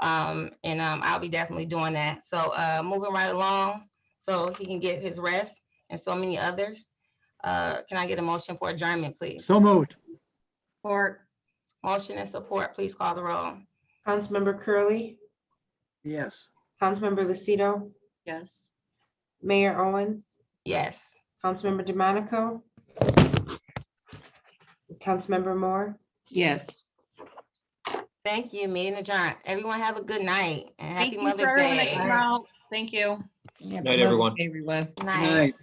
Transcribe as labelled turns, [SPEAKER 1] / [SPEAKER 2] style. [SPEAKER 1] Um, and um, I'll be definitely doing that. So uh, moving right along, so he can get his rest and so many others. Uh, can I get a motion for adjournment, please?
[SPEAKER 2] So moved.
[SPEAKER 3] Or
[SPEAKER 1] Motion and support, please call the roll.
[SPEAKER 4] Councilmember Curley,
[SPEAKER 2] Yes.
[SPEAKER 4] Councilmember Lucido,
[SPEAKER 3] Yes.
[SPEAKER 4] Mayor Owens,
[SPEAKER 1] Yes.
[SPEAKER 4] Councilmember DeMonico, Councilmember Moore.
[SPEAKER 5] Yes.
[SPEAKER 1] Thank you, meeting adjourned. Everyone have a good night and happy
[SPEAKER 3] Thank you for
[SPEAKER 1] Mother's
[SPEAKER 3] everyone that
[SPEAKER 1] Day.
[SPEAKER 3] came out. Thank you.
[SPEAKER 5] Night,
[SPEAKER 6] everyone.
[SPEAKER 5] Everyone.
[SPEAKER 1] Good
[SPEAKER 2] Night.